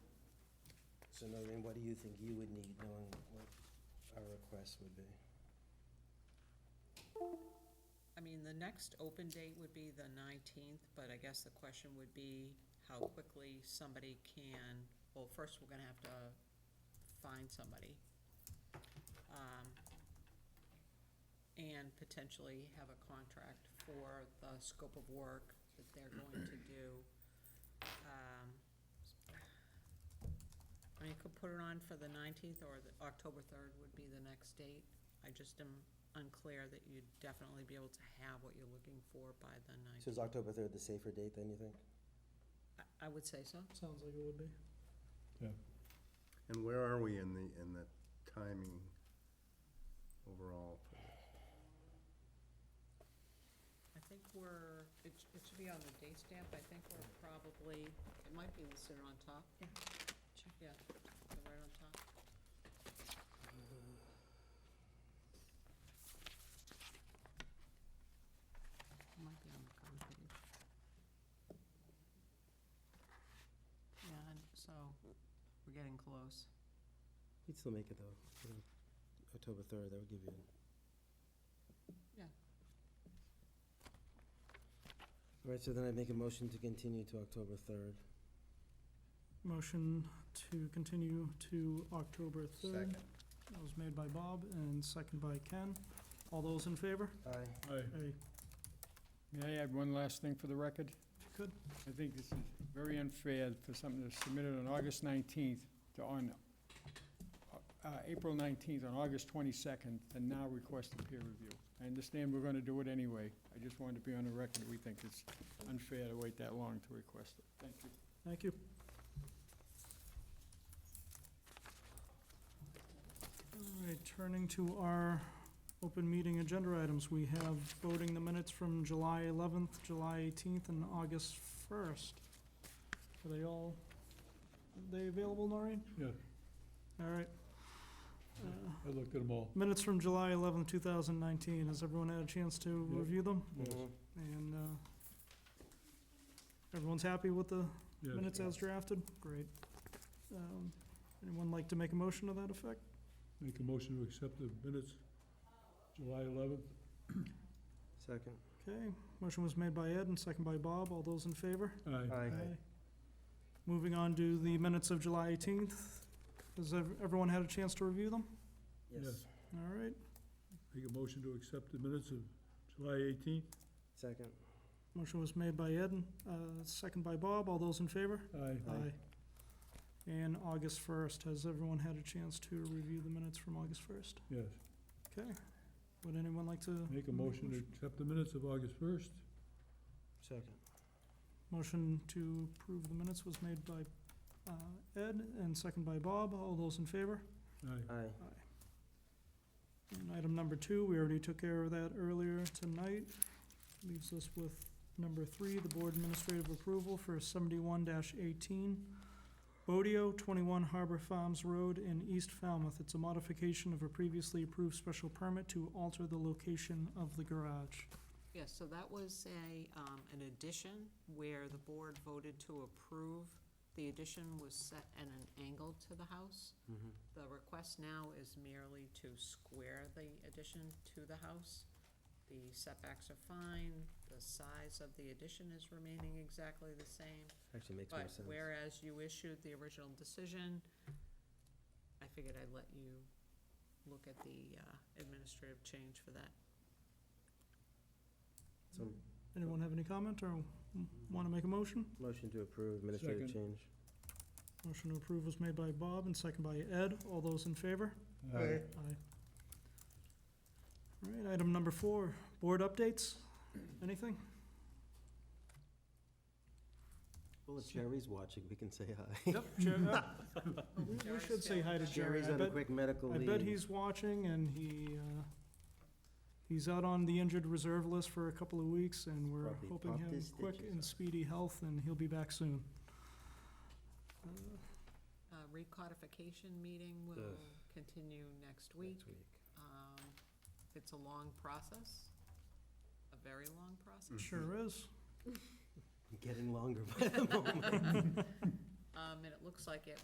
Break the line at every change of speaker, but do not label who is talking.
So Noreen, what do you think you would need, knowing what our request would be?
I mean, the next open date would be the nineteenth, but I guess the question would be how quickly somebody can, well, first, we're gonna have to find somebody. Um, And potentially have a contract for the scope of work that they're going to do. Um, I mean, you could put it on for the nineteenth, or the, October third would be the next date. I just am unclear that you'd definitely be able to have what you're looking for by the
So
nineteenth.
is October third the safer date then, you think?
I would say so.
Sounds like it would be.
And where are we in the, in the timing overall? for this?
I think we're, it, sh- it should be on the date stamp, I think we're probably, it might be listed on top. Yeah. Yeah, they're right on top. It Might be on the cover page. Yeah, and so, we're getting close.
We'd still make it though. October third, that would give you.
Yeah.
All right, so then I'd make a motion to continue to October third.
Motion to continue to October 3rd.
Second.
That was made by Bob and second by Ken. All those in favor?
Aye.
Aye.
May I add one last thing for the record?
Good.
I think this is very unfair for something that's submitted on August 19th to on, uh, April 19th, on August 22nd, and now request a peer review. I understand we're going to do it anyway. I just wanted to be on the record. We think it's unfair to wait that long to request it. Thank you.
Thank you. All right, turning to our open meeting agenda items, we have voting the minutes from July 11th, July 18th, and August 1st. Are they all, are they available, Noreen?
Yeah,
All right.
I looked at them all.
Minutes from July 11th, 2019. Has everyone had a chance to
Yep.
review them?
Yes,
And uh, everyone's happy with the
yes.
minutes as drafted? Great. Um, Anyone like to make a motion to that effect?
Make a motion to accept the minutes, July 11th.
Second.
Okay, motion was made by Ed and second by Bob. All those in favor?
Aye.
Aye.
Moving on to the minutes of July 18th. Has ev- everyone had a chance to review them?
Yes.
Yes.
All right.
Make a motion to accept the minutes of July 18th.
Second.
Motion was made by Ed and uh, second by Bob. All those in favor?
Aye.
Aye. And August 1st, has everyone had a chance to review the minutes from August 1st?
Yes.
Okay. Would anyone like to?
Make a motion to accept the minutes of August 1st.
Second.
Motion to approve the minutes was made by uh, Ed and second by Bob. All those in favor?
Aye.
Aye.
And item number two, we already took care of that earlier tonight. Leaves us with number three, the board administrative approval for seventy-one eighteen. Bodio, twenty-one Harbor Farms Road in East Falmouth. It's a modification of a previously approved special permit to alter the location of the garage.
Yes, so that was a, um, an addition where the board voted to approve. The addition was set at an angle to the house.
Mhm.
The request now is merely to square the addition to the house. The setbacks are fine, the size of the addition is remaining exactly the same.
Actually makes more
But
sense.
whereas you issued the original decision, I figured I'd let you look at the uh, administrative change for that.
So,
Anyone have any comment or want to make a motion?
motion to approve administrative
Second.
change.
Motion to approve was made by Bob and second by Ed. All those in favor?
Aye.
Aye. All right, item number four, board updates. Anything?
Well, if Jerry's watching, we can say hi.
Yep, Jerry.
Uh,
We we should say hi to Jerry.
Jerry's
I
on a
bet,
quick medical
I
leave.
bet he's watching and he, uh, he's out on the injured reserve list for a couple of weeks and we're
Probably
hoping
popped
him
his
quick
stitches
and
up.
speedy health and he'll be back soon. Uh,
Uh, Recodification meeting will
Ugh.
continue next week.
Next week.
Um, It's a long process, a very long process.
Sure is.
Getting longer by the moment.
Um, And it looks like it